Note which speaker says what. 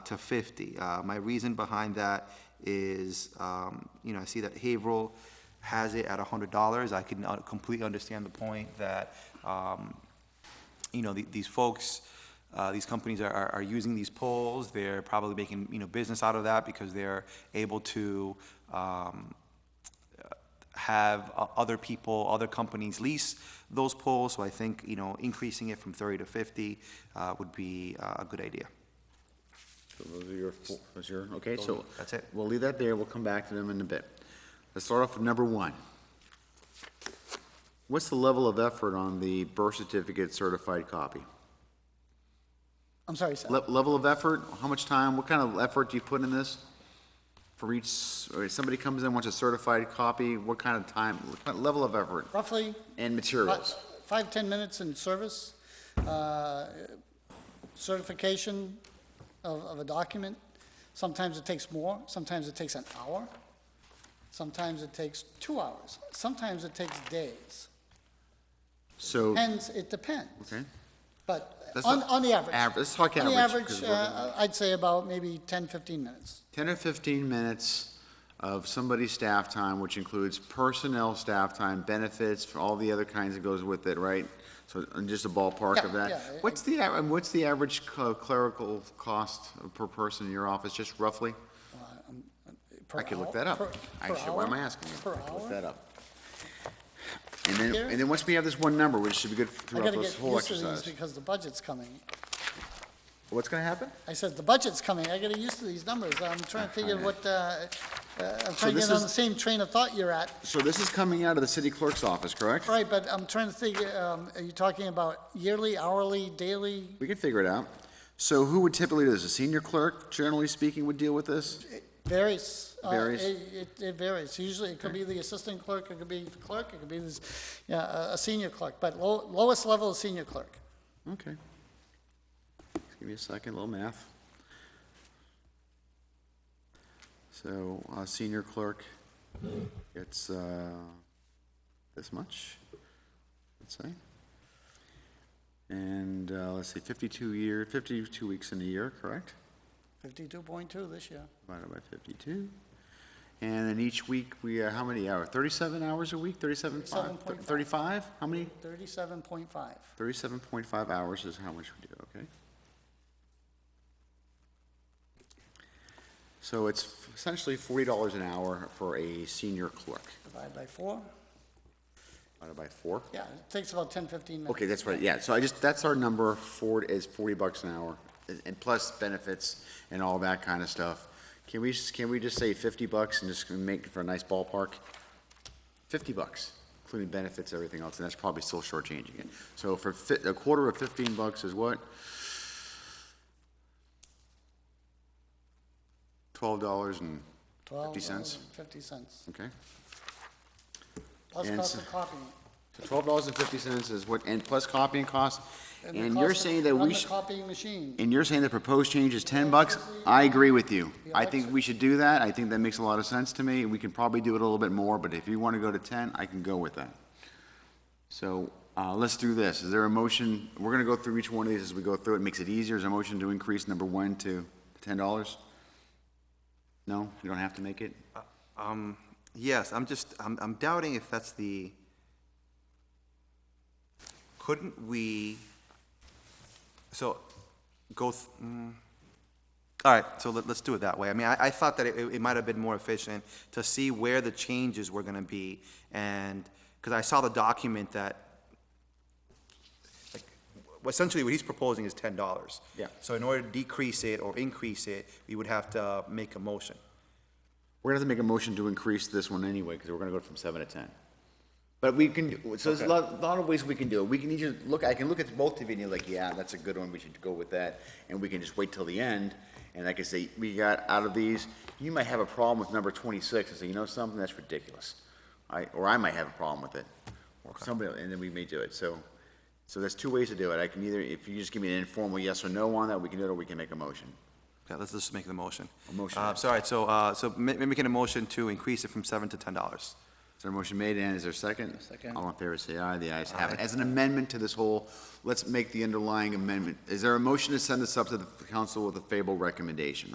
Speaker 1: to 50. Uh, My reason behind that is, um, you know, I see that Haverhill has it at $100. I can uh, completely understand the point that, um, you know, the- these folks, uh, these companies are- are, are using these polls, they're probably making, you know, business out of that because they're able to um, have uh, other people, other companies lease those polls, so I think, you know, increasing it from 30 to 50 uh, would be uh, a good idea.
Speaker 2: So those are your, four- those are your, okay, so.
Speaker 1: That's it.
Speaker 2: We'll leave that there, we'll come back to them in a bit. Let's start off with number one. What's the level of effort on the birth certificate certified copy?
Speaker 3: I'm sorry, Sal.
Speaker 2: Le- Level of effort, how much time, what kind of effort do you put in this? For each, s- or if somebody comes in, wants a certified copy, what kind of time, what kind of level of effort
Speaker 3: Roughly
Speaker 2: and
Speaker 3: fi-
Speaker 2: materials?
Speaker 3: five, 10 minutes in service, uh, certification of, of a document. Sometimes it takes more, sometimes it takes an hour, sometimes it takes two hours, sometimes it takes days.
Speaker 2: So,
Speaker 3: Depends, it depends.
Speaker 2: okay,
Speaker 3: But
Speaker 2: That's
Speaker 3: on,
Speaker 2: not
Speaker 3: on the average.
Speaker 2: average, let's talk
Speaker 3: On the
Speaker 2: average.
Speaker 3: average,
Speaker 2: 'cause we're-
Speaker 3: uh, I'd say about maybe 10, 15 minutes.
Speaker 2: 10 or 15 minutes of somebody's staff time, which includes personnel staff time, benefits, for all the other kinds that goes with it, right? So, and just a ballpark of
Speaker 3: Yeah, yeah,
Speaker 2: that.
Speaker 3: I-
Speaker 2: What's the, a- what's the average cl- clerical cost per person in your office, just roughly? I could look that up. Actually, why am I asking you?
Speaker 3: Per
Speaker 2: I could Look that
Speaker 3: hour.
Speaker 2: up. And then,
Speaker 3: Here?
Speaker 2: and then once we have this one number, which should be good
Speaker 3: I
Speaker 2: throughout
Speaker 3: gotta
Speaker 2: this
Speaker 3: get
Speaker 2: whole
Speaker 3: used to these
Speaker 2: exercise.
Speaker 3: because the budget's coming.
Speaker 2: What's gonna happen?
Speaker 3: I said, the budget's coming, I gotta used to these numbers, I'm trying to figure what, uh, uh, I'm trying to
Speaker 2: this
Speaker 3: get on
Speaker 2: is-
Speaker 3: the same train of thought you're at.
Speaker 2: So this is coming out of the city clerk's office, correct?
Speaker 3: Right, but I'm trying to figure, um, are you talking about yearly, hourly, daily?
Speaker 2: We can figure it out. So who would typically do this? A senior clerk, generally speaking, would deal with this?
Speaker 3: It Varies. Uh,
Speaker 2: Varies.
Speaker 3: It, it- it varies, usually it could be the assistant clerk, it could be the clerk, it could be this, yeah, a, a senior clerk, but low, lowest level is senior clerk.
Speaker 2: Okay. Give me a second, a little math. So, uh, senior clerk gets, uh, this much, let's say. And, uh, let's see, fifty-two year, fifty-two weeks in a year, correct?
Speaker 3: Fifty-two point two this year.
Speaker 2: Divided by fifty-two. And then each week, we, uh, how many hours? Thirty-seven hours a week, thirty-seven, five,
Speaker 3: 37.5.
Speaker 2: thirty-five? How many?
Speaker 3: Thirty-seven point five.
Speaker 2: Thirty-seven point five hours is how much we do, okay? So it's essentially forty dollars an hour for a senior clerk,
Speaker 3: Divide by four.
Speaker 2: divided by four.
Speaker 3: Yeah, it takes about 10, 15 minutes.
Speaker 2: Okay, that's right, yeah, so I just, that's our number, Ford is forty bucks an hour, and- and plus benefits and all that kind of stuff. Can we, just- can we just say fifty bucks and just make it for a nice ballpark? Fifty bucks, including benefits, everything else, and that's probably still shortchanging it. So for fi- a quarter of fifteen bucks is what? Twelve dollars and
Speaker 3: Twelve
Speaker 2: fifty cents,
Speaker 3: dollars and Fifty cents,
Speaker 2: okay?
Speaker 3: plus
Speaker 2: And
Speaker 3: cost
Speaker 2: so-
Speaker 3: of copying.
Speaker 2: So twelve dollars and fifty cents is what, and plus copying costs,
Speaker 3: the
Speaker 2: and you're
Speaker 3: cost of-
Speaker 2: saying that
Speaker 3: run
Speaker 2: we
Speaker 3: the
Speaker 2: should.
Speaker 3: copying machine.
Speaker 2: And you're saying the proposed change is ten bucks? I agree with you. I think
Speaker 3: election.
Speaker 2: we should do that. I think that makes a lot of sense to me. We can probably do it a little bit more, but if you want to go to ten, I can go with that. So, uh, let's do this. Is there a motion? We're gonna go through each one of these as we go through. It makes it easier. Is there a motion to increase number one to ten dollars? No? You don't have to make it?
Speaker 1: Um, Yes, I'm just, I'm I'm doubting if that's the, couldn't we, so, go, th- mm. all right, so let- let's do it that way. I mean, I I thought that it it might have been more efficient to see where the changes were going to be, and, because I saw the document that well, essentially what he's proposing is ten dollars.
Speaker 2: Yeah.
Speaker 1: So in order to decrease it or increase it, we would have to make a motion.
Speaker 2: We're gonna have to make a motion to increase this one anyway, because we're gonna go from seven to ten. But we can, so there's a lot, lot of ways we can do it. We can either look, I can look at both of you and you're like, yeah, that's a good one, we should go with that. And we can just wait till the end, and I can say, we got out of these, you might have a problem with number twenty-six, and say, you know something, that's ridiculous. I, or I might have a problem with it, or somebody, and then we may do it, so. So there's two ways to do it. I can either, if you just give me an informal yes or no on that, we can do it, or we can make a motion.
Speaker 1: Yeah, let's just make the motion.
Speaker 2: A motion.
Speaker 1: Uh, Sorry, so, uh, so ma- ma- making a motion to increase it from seven to ten dollars.
Speaker 2: Is there a motion made, and is there a second?
Speaker 4: Second.
Speaker 2: All in favor, say aye, the ayes have it. As an amendment to this whole, let's make the underlying amendment. Is there a motion to send this up to the council with a favorable recommendation?